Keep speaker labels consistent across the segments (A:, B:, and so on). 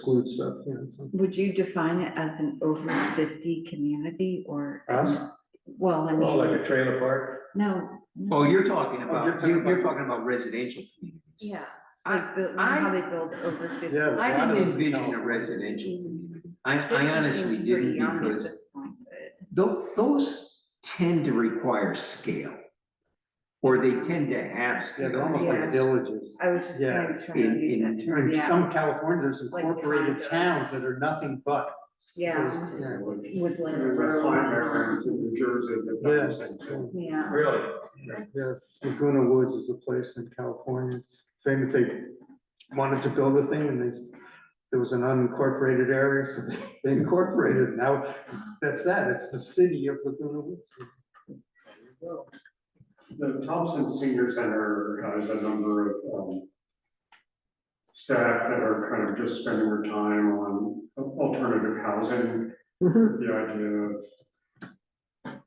A: exclude stuff, yeah, so.
B: Would you define it as an over fifty community or?
A: Us?
B: Well, I
C: Oh,
B: mean,
C: like a trailer park?
B: no. no,
D: Oh, you're talking
A: Oh, you're
D: about,
A: talking
D: you're, you're
A: about-
D: talking about residential communities.
B: Yeah, like, build- you know how they build over fifty.
A: Yeah,
D: I
A: A lot of
D: didn't
A: them
D: envision
A: don't.
D: a residential community. I, I
B: 50
D: honestly
B: seems pretty
D: didn't
B: young at
D: because
B: this point, but-
D: tho- those tend to require scale. Or they tend to have
A: Yeah,
D: scale.
A: they're almost like
B: Yeah.
A: villages.
B: I was just
A: Yeah,
B: kind of trying to
D: in-
B: use
D: in-
B: that term,
A: In
B: yeah,
A: some California, there's
B: Like
A: incorporated
B: condos.
A: towns that are nothing but.
B: yeah,
A: those- yeah.
B: with like. roads.
E: New Jersey, but not the
A: Yes,
E: same thing.
B: Yeah,
C: Really?
A: yeah, Laguna Woods is a place in California, it's famous, they wanted to build a thing and they, s- there was an unincorporated area, so they incorporated, now, that's that, it's the city of Laguna Woods.
E: The Thompson Senior Center has a number of, um, staff that are kind of just spending their time on alternative housing, with the idea of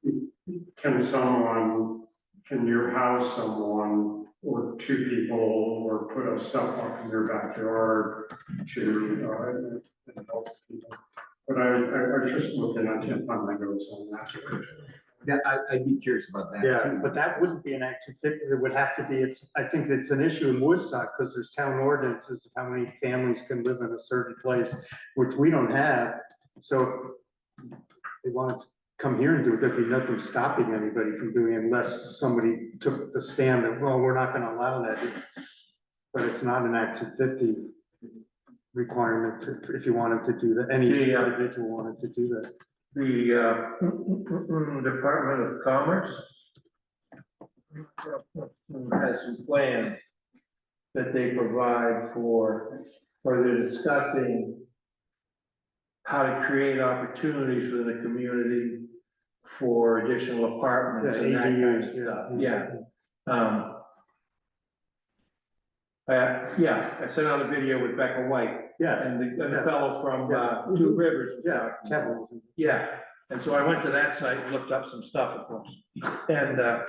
E: can someone, can you house someone or two people or put a sidewalk in your backyard to, uh, and help people? But I, I I was just looking, I can't find my notes on that.
D: That, I, I'd be curious about that
A: Yeah,
D: too.
A: but that wouldn't be an action fifty, it would have to be, it's- I think it's an issue in Woodstock, because there's town ordinances of how many families can live in a certain place, which we don't have, so if they wanted to come here and do it, there'd be nothing stopping anybody from doing it unless somebody took the stand that, well, we're not gonna allow that. But it's not an action fifty requirement to- if you wanted to do that, any
C: Yeah.
A: individual wanted to do that.
C: The uh, Department of Commerce has some plans that they provide for, or they're discussing how to create opportunities within a community for additional apartments and that kind of
A: ADUs,
C: stuff, yeah. Um, uh, yeah, I sent out a video with Becca White
A: Yeah,
C: and the, and the
A: Yeah.
C: fellow from,
A: Yeah.
C: uh, Two Rivers. was
A: yeah,
C: talking.
A: Kevin.
C: Yeah, and so I went to that site, and looked up some stuff, of course, and, uh,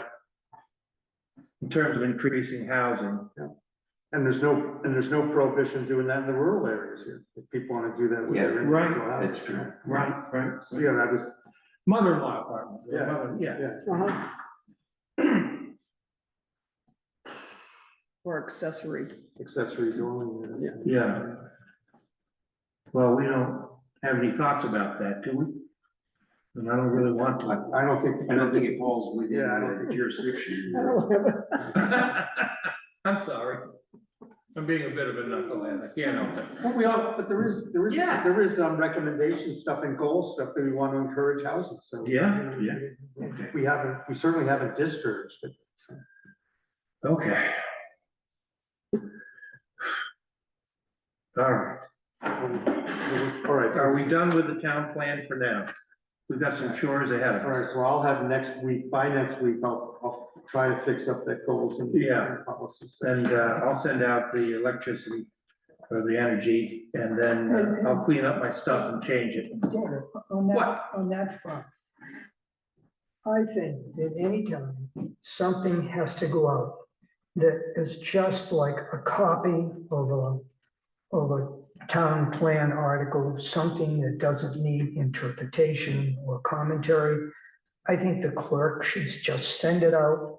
C: in terms of increasing housing,
A: And there's no, and there's no prohibition doing that in the rural areas here, if people wanna do that with their.
C: Yeah, right.
A: individual house.
D: That's true.
C: right, right?
A: So, yeah, that was,
C: Mother-in-law apartment,
A: Yeah.
C: yeah, yeah,
A: yeah,
F: Or accessory.
A: accessory dwelling. Yeah.
C: yeah. Well, we don't have any thoughts about that, do we? And I don't really want to.
A: I, I don't think.
D: I don't think it falls within
A: Yeah, I don't
D: the jurisdiction.
C: I'm sorry. I'm being a bit of a knucklehead, I can't help it.
A: Well, we all, but there is, there is,
C: Yeah.
A: there is, um, recommendation stuff and goal stuff that we wanna encourage housing, so.
C: Yeah, yeah.
A: We haven't, we certainly haven't discouraged it.
C: Okay. All right,
A: All right, so-
C: are we done with the town plan for now? We've got some chores ahead of
A: all right,
C: us.
A: so I'll have next week, by next week, I'll, I'll try to fix up that goals and.
C: Yeah.
A: Policies.
C: And uh, I'll send out the electricity or the energy and then uh, I'll clean up my stuff and change it.
F: David, on that,
C: What?
F: on that front. I think that anytime something has to go out that is just like a copy of a, of a town plan article, something that doesn't need interpretation or commentary, I think the clerk should just send it out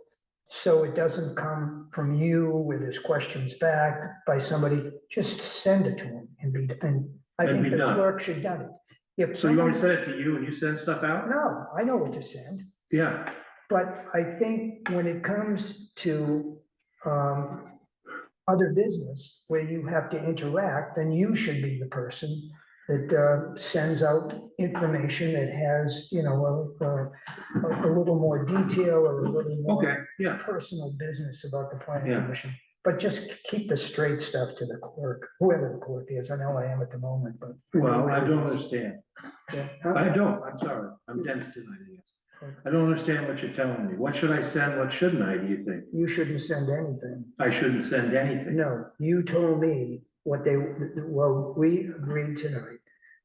F: so it doesn't come from you where there's questions back by somebody. Just send it to them and be, and I
C: And
F: think
C: be
F: the
C: done.
F: clerk should done it. If
C: So you want me to
F: someone-
C: send it to you and you send stuff out?
F: No, I know what to send,
C: Yeah,
F: but I think when it comes to um, other business where you have to interact, then you should be the person that uh, sends out information that has, you know, a, a- a little more detail or a little more
C: okay, yeah,
F: personal business about the
C: Yeah.
F: planning commission. But just keep the straight stuff to the clerk, whoever the clerk is. I know I am at the moment, but.
C: well, I don't understand.
F: Yeah.
C: I don't, I'm sorry, I'm dense tonight, I guess. I don't understand what you're telling me. What should I send, what shouldn't I, do you think?
F: You shouldn't send anything.
C: I shouldn't send anything.
F: No, you told me what they, well, we agreed tonight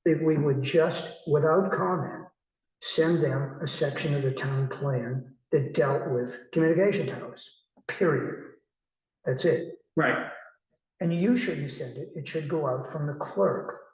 F: that we would just, without comment, send them a section of the town plan that dealt with communication towers, period. That's it.
C: Right,
F: And you shouldn't send it. It should go out from the clerk.